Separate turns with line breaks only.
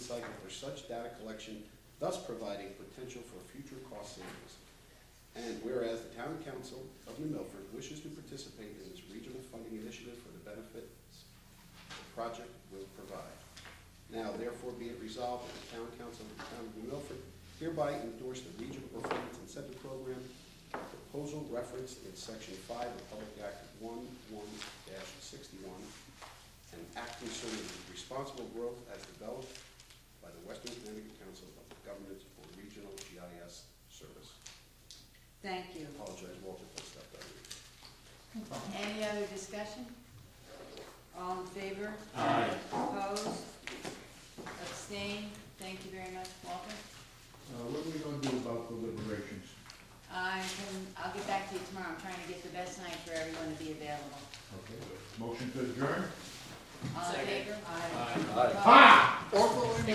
recycled for such data collection, thus providing potential for future cost savings. And whereas the town council of New Milford wishes to participate in this regional funding initiative for the benefits the project will provide. Now therefore be it resolved that the town council of the town of New Milford hereby endorse the regional performance incentive program proposal referenced in section five of Public Act one one sixty-one and act concerning responsible growth as developed by the Western Connecticut Council of Governments for Regional GIS Service.
Thank you.
Apologize, Walter, if I stepped on you.
Any other discussion? All in favor?
Aye.
Opposed? Abstain? Thank you very much, Walter.
Uh, what are we gonna do about the deliberations?
I can, I'll get back to you tomorrow. I'm trying to get the best night for everyone to be available.
Okay, motion to adjourn?
All in favor? Aye.
Ah!
Opposed?